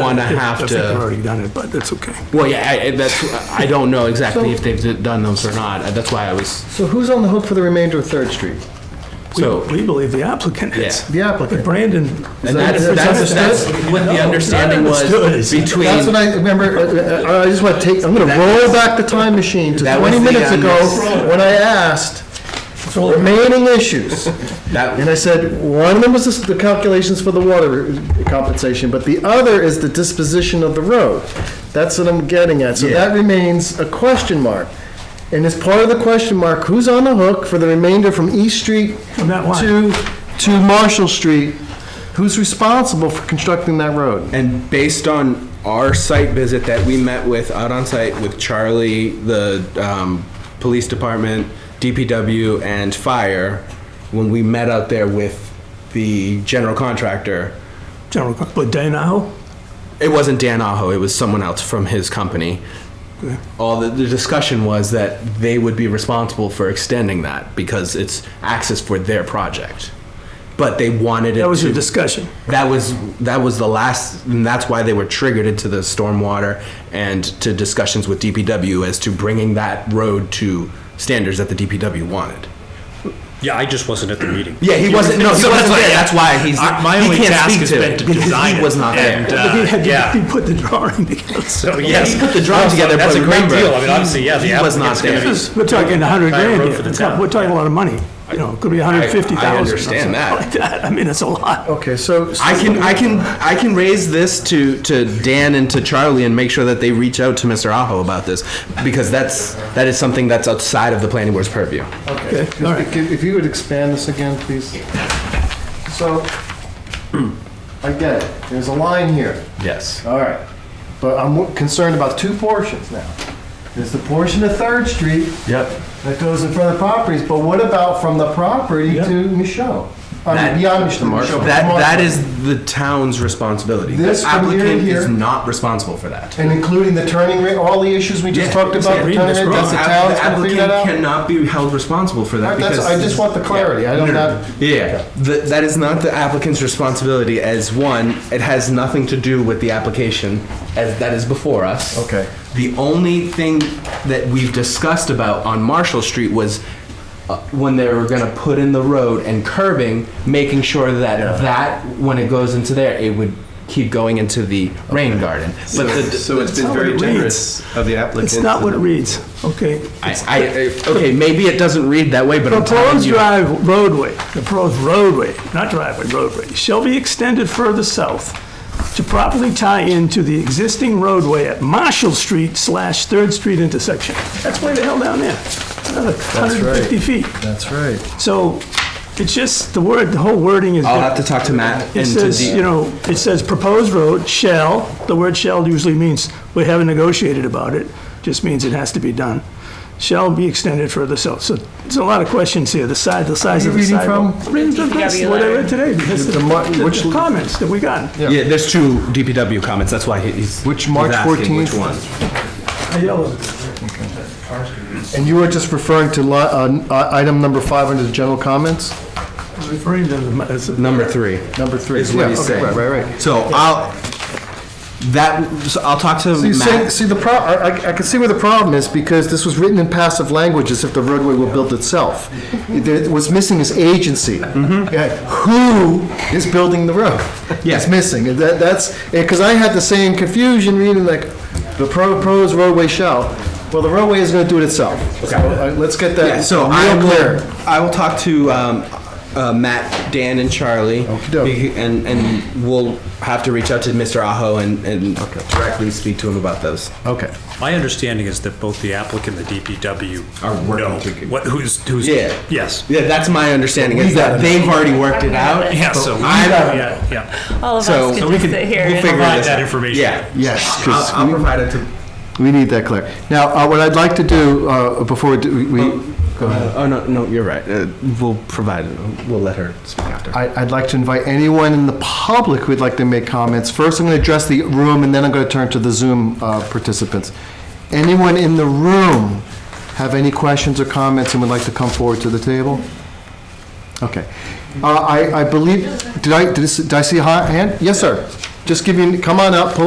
wanna have I think they've to, already done it, but that's okay. well, yeah, I, I- that's, I don't know exactly if they've done those or not, Uh, that's why I was, So who's on the hook for the remainder of Third Street? We- so. We believe the applicant is. The But applicant. Brandon. And that's, Is that that's, that's understood? what the understanding not was understood. between. That's what I remember, uh, uh, I just want to take, I'm going to roll back the time machine to That was 20 the, minutes um, ago when I asked remaining issues. That- And I said, one of them was the calculations for the water compensation, but the other is the disposition of the road. That's what I'm getting at. So that remains a question mark. And as part of the question mark, who's on the hook for the remainder from East Street From that line. to, to Marshall Street? Who's responsible for constructing that road? And based on our site visit that we met with out on site with Charlie, the um, police department, DPW, and fire, when we met out there with the general contractor, General, but Danaho, it wasn't Dan Aho, it was someone else from his company. All the, the discussion was that they would be responsible for extending that because it's access for their project. But they wanted it that was to your discussion. that was that was the last and that's why they were triggered into the stormwater and to discussions with DPW as to bringing that road to standards that the DPW wanted. Yeah, I just wasn't at the meeting. Yeah, he wasn't. No, he So wasn't that's there. why- That's why he's. I- My he only can't task speak has to been it to because design He it. was not and, there. uh, He had- Yeah, He put the drawing together. so yes. he put the drawing Well, so together, That's but a great remember, deal. I mean, obviously, yeah, the he was not applicant's gonna there. be. We're talking a hundred Entire grand road for the here. town. We're talking a lot of money. You know, it could be a hundred fifty thousand. I understand that. I mean, it's a lot. Okay, so. I can I can I can raise this to to Dan and to Charlie and make sure that they reach out to Mr. Aho about this because that's that is something that's outside of the planning board's purview. Okay, Okay, all right. If- if you would expand this again, please. So, I get it, there's a line here, Yes. all right, but I'm concerned about two portions now. There's the portion of Third Street Yep. that goes in front of the properties, but what about from the property Yeah. to Michelle? I That- mean, beyond Michelle. Michelle, That, Marshall. that is the town's responsibility. This The from here to applicant here. is not responsible for that. And including the turning rate, all the issues we just Yeah, talked about, the reading turning this rate, wrong. does the town gonna figure that applicant out? cannot be held responsible for that All right, that's- because. I just want the clarity. I don't No, have- Yeah, Th- that is not the applicant's responsibility as one, it has nothing to do with the application as that is before us. Okay. The only thing that we've discussed about on Marshall Street was uh, when they were gonna put in the road and curbing, making sure that that, when it goes into there, it would keep going into the rain garden. But the, So it's been not very what it reads. generous of the applicant. It's not what it reads, okay? I, I, okay, maybe it doesn't read that way, but I'm telling Proposed you. drive roadway, proposed roadway, not driveway, roadway, shall be extended further south to properly tie into the existing roadway at Marshall Street slash Third Street intersection. That's way the hell down there. Another hundred and fifty feet. That's right. So it's just, the word, the whole wording is. I'll have to talk to Matt It and to says, the- you know, it says proposed road shall, the word shall usually means, we haven't negotiated about it, just means it has to be done, shall be extended further south. So there's a lot of questions here, the size, the size you of the reading sidewalk. Reading from? this, DPW what I letter. read today, because the The mo- which- the comments that we got. Yeah, there's two DPW comments. That's why he- he's Which he's March asking 14th? Which one? I yelled. And you were just referring to li- uh, uh, item number five under the general comments? I was referring to them as a- Number three Number three. is what Yeah, he's okay, saying. Right, right, right. So I'll that so I'll talk to See, see- Matt. see, the pro, I, I- I can see where the problem is, because this was written in passive language as if the roadway will build itself. There- What's missing is agency. Yeah, Who is building the road? It's Mm-hmm. Yeah. missing, And that, that's, because I had the same confusion reading like, the pro- proposed roadway shall, well, the roadway is gonna do it itself. So, uh, let's get Yeah, that so I real clear. will I will talk to um, uh, Matt, Dan, and Charlie, Okey-doke. Be- and and we'll have to reach out to Mr. Aho and, and directly speak to him about those. Okay. My understanding is that both the applicant and the DPW Are working know together. What, who's, who's? Yeah. Yes. Yeah, that's my understanding. Is that they've already worked it out. Yeah, so, we- I'm- yeah, yeah. All of So- us So could we just could- sit here. we'll and- figure Provide this that out. information. Yeah. Yes, I'll, I'll provide it to. We need that clear. Now, uh, what I'd like to do, uh, before we do- we, go ahead. Oh no, no, you're right. Uh, we'll provide it. We'll let her speak after. I- I'd like to invite anyone in the public who'd like to make comments. First, I'm going to address the room, and then I'm going to turn to the Zoom uh, participants. Anyone in the room have any questions or comments and would like to come forward to the table? Okay. Uh, I I believe, did I, did I see a hi- hand? Yes, sir. Just give me, come on up, pull